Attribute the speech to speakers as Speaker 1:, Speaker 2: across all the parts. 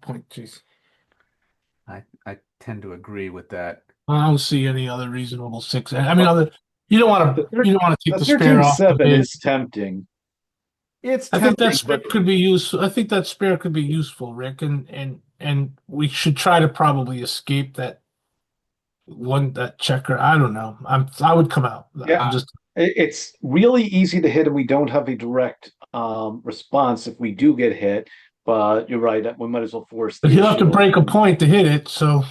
Speaker 1: point, Jason.
Speaker 2: I, I tend to agree with that.
Speaker 1: I don't see any other reasonable six. I mean, other you don't want to you don't want to take the spare
Speaker 3: Thirteen
Speaker 1: off. the
Speaker 3: seven
Speaker 1: bid.
Speaker 3: is tempting.
Speaker 2: It's
Speaker 1: I think that
Speaker 2: tempting,
Speaker 1: spare
Speaker 2: but
Speaker 1: could be useful. I think that spare could be useful, Rick, and and and we should try to probably escape that one that checker. I don't know. I'm I would come out. I'm
Speaker 3: Yeah.
Speaker 1: just
Speaker 3: It, it's really easy to hit and we don't have a direct, um, response if we do get hit. But you're right, we might as well force. the
Speaker 1: if you have to
Speaker 3: issue.
Speaker 1: break a point to hit it, so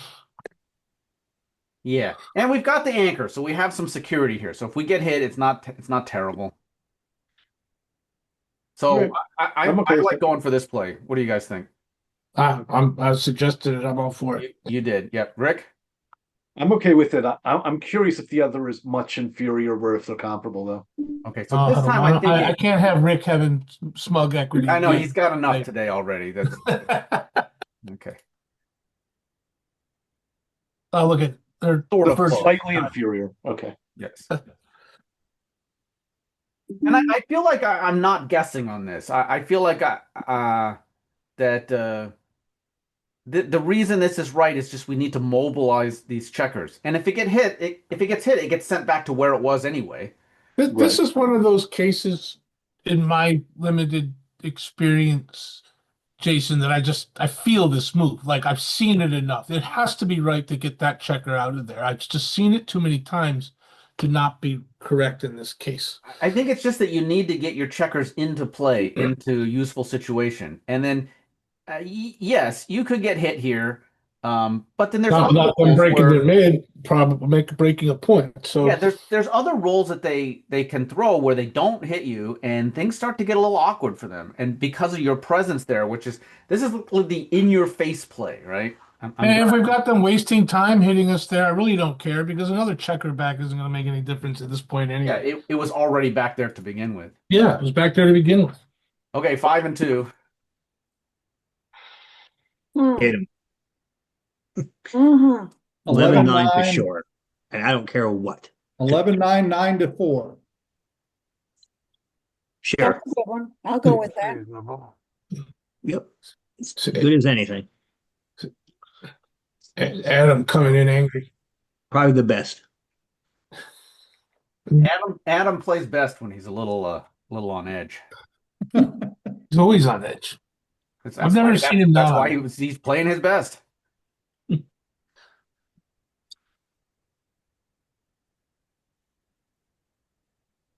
Speaker 2: yeah, and we've got the anchor, so we have some security here. So if we get hit, it's not it's not terrible. So
Speaker 3: Okay.
Speaker 2: I, I,
Speaker 3: I'm okay
Speaker 2: I
Speaker 3: with
Speaker 2: like
Speaker 3: it.
Speaker 2: going for this play. What do you guys think?
Speaker 1: I, I'm I suggested it. I'm all for it.
Speaker 2: You, you did, yep. Rick,
Speaker 3: I'm okay with it. I, I'm I'm curious if the other is much inferior or if they're comparable though.
Speaker 2: okay. So
Speaker 1: Oh,
Speaker 2: this
Speaker 1: I don't
Speaker 2: time
Speaker 1: wanna-
Speaker 2: I think
Speaker 1: I, I
Speaker 2: it-
Speaker 1: can't have Rick having smug equity.
Speaker 2: I know he's got enough
Speaker 1: Right.
Speaker 2: today already. That's okay.
Speaker 1: oh, look at they're
Speaker 2: Sort
Speaker 1: the
Speaker 2: of
Speaker 1: first.
Speaker 2: close.
Speaker 3: Slightly inferior, okay.
Speaker 2: Yes.
Speaker 1: Uh,
Speaker 2: and I, I feel like I, I'm not guessing on this. I, I feel like I uh, that uh, the the reason this is right is just we need to mobilize these checkers. And if it get hit, it, if it gets hit, it gets sent back to where it was anyway.
Speaker 1: Th- This is one of those cases in my limited experience, Jason, that I just I feel this move. Like I've seen it enough. It has to be right to get that checker out of there. I've just seen it too many times to not be correct in this case.
Speaker 2: I think it's just that you need to get your checkers into play, into useful situation, and then uh, y- yes, you could get hit here, um, but then there's
Speaker 1: Not,
Speaker 2: other
Speaker 1: not them
Speaker 2: roles
Speaker 1: breaking
Speaker 2: where-
Speaker 1: their mid, probably make breaking a point. So
Speaker 2: Yeah, there's there's other roles that they they can throw where they don't hit you, and things start to get a little awkward for them. And because of your presence there, which is this is the in your face play, right? I'm, I'm-
Speaker 1: And if we've got them wasting time hitting us there, I really don't care because another checker back isn't going to make any difference at this point
Speaker 2: yeah,
Speaker 1: anyway.
Speaker 2: it, it was already back there to begin with.
Speaker 1: Yeah, it was back there to begin with.
Speaker 2: Okay, five and two.
Speaker 4: Mm,
Speaker 5: Hit him.
Speaker 4: Mhm.
Speaker 5: Eleven nine for
Speaker 6: 11-9.
Speaker 5: sure. And I don't care what.
Speaker 6: Eleven nine nine to four.
Speaker 4: That's
Speaker 5: Sure.
Speaker 4: a good one. I'll go with that.
Speaker 5: Yep. It's
Speaker 1: So-
Speaker 5: good as anything.
Speaker 1: A- Adam coming in angry.
Speaker 5: Probably the best.
Speaker 2: Adam Adam plays best when he's a little uh little on edge.
Speaker 1: He's always on edge.
Speaker 2: That's-
Speaker 1: I've
Speaker 2: that's
Speaker 1: never
Speaker 2: why-
Speaker 1: seen
Speaker 2: that's-
Speaker 1: him
Speaker 2: That's
Speaker 1: not.
Speaker 2: why he was he's playing his best.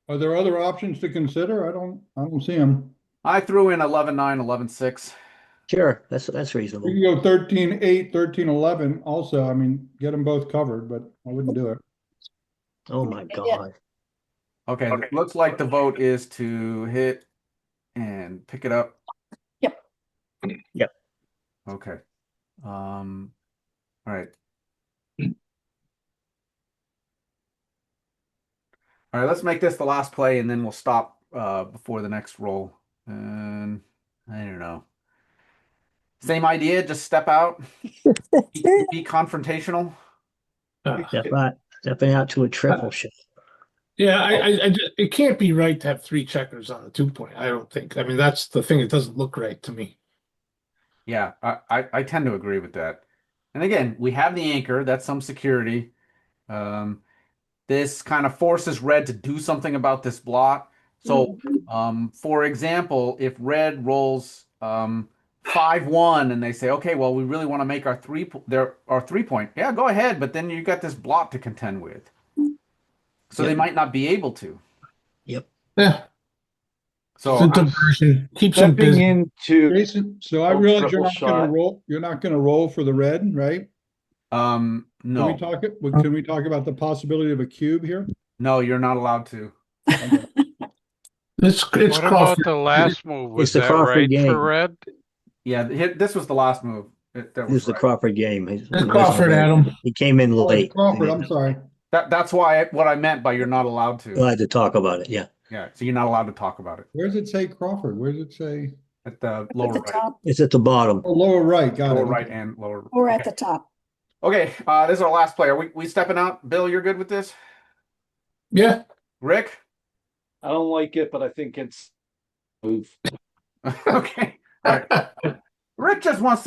Speaker 6: Are there other options to consider? I don't, I don't see them.
Speaker 2: I threw in 11 9, 11 6.
Speaker 5: Sure. That's that's reasonable.
Speaker 6: You can go thirteen eight, thirteen eleven also. I mean, get them both covered, but I wouldn't do it.
Speaker 5: Oh my god.
Speaker 2: Okay, it looks like the vote is to hit and pick it up.
Speaker 4: Yep.
Speaker 5: Yep.
Speaker 2: Okay. Um, all right. All right, let's make this the last play and then we'll stop uh before the next roll. And I don't know. Same idea, just step out, be- be confrontational.
Speaker 5: Step out, stepping out to a triple shot.
Speaker 1: Yeah, I, I, I ju- it can't be right to have three checkers on the two point. I don't think. I mean, that's the thing. It doesn't look right to me.
Speaker 2: Yeah, I, I, I tend to agree with that. And again, we have the anchor, that's some security. Um, this kind of forces red to do something about this block. So,
Speaker 6: Mm-hmm.
Speaker 2: um, for example, if red rolls um, 5 1 and they say, okay, well, we really want to make our three, po- their, our three point, yeah, go ahead, but then you got this block to contend with. So they
Speaker 5: Yep.
Speaker 2: might not be able to.
Speaker 1: Yeah,
Speaker 2: So,
Speaker 1: it's a diversion. Keep some
Speaker 3: Stepping
Speaker 1: busy.
Speaker 3: into,
Speaker 6: Jason, so I
Speaker 3: Oh,
Speaker 6: realize you're
Speaker 3: triple
Speaker 6: not gonna
Speaker 3: shot.
Speaker 6: roll, you're not gonna roll for the red, right?
Speaker 2: um,
Speaker 6: Can we
Speaker 2: no,
Speaker 6: talk, it- can we talk about the possibility of a cube here?
Speaker 2: no, you're not allowed to.
Speaker 4: Mm-hmm.
Speaker 1: It's it's
Speaker 7: What about
Speaker 1: Crawford.
Speaker 7: the last move? Was
Speaker 5: the
Speaker 7: that
Speaker 5: Crawford
Speaker 7: right
Speaker 5: game.
Speaker 7: for red?
Speaker 2: Yeah, th- hit- this was the last move. It- that
Speaker 5: This is
Speaker 2: was
Speaker 5: the
Speaker 2: right.
Speaker 5: Crawford game. He-
Speaker 1: It's Crawford, Adam.
Speaker 5: He came in
Speaker 6: Oh,
Speaker 5: late.
Speaker 6: it's Crawford, I'm sorry.
Speaker 2: That that's why I, what I meant by you're not allowed
Speaker 5: We'll
Speaker 2: to.
Speaker 5: have to talk about it. Yeah.
Speaker 2: Yeah, so you're not allowed to talk about it
Speaker 6: Where does it say Crawford? Where does it say?
Speaker 2: at the
Speaker 4: At
Speaker 2: lower
Speaker 4: the
Speaker 2: right,
Speaker 4: top,
Speaker 5: It's at the bottom.
Speaker 6: Oh, lower right, got it.
Speaker 2: lower right and lower.
Speaker 4: we're at
Speaker 2: okay.
Speaker 4: the top.
Speaker 2: Okay, uh, this is our last player. We we stepping out. Bill, you're good with this.
Speaker 1: Yeah,
Speaker 2: Rick,
Speaker 3: I don't like it, but I think it's move.
Speaker 2: okay. All right. Rick just wants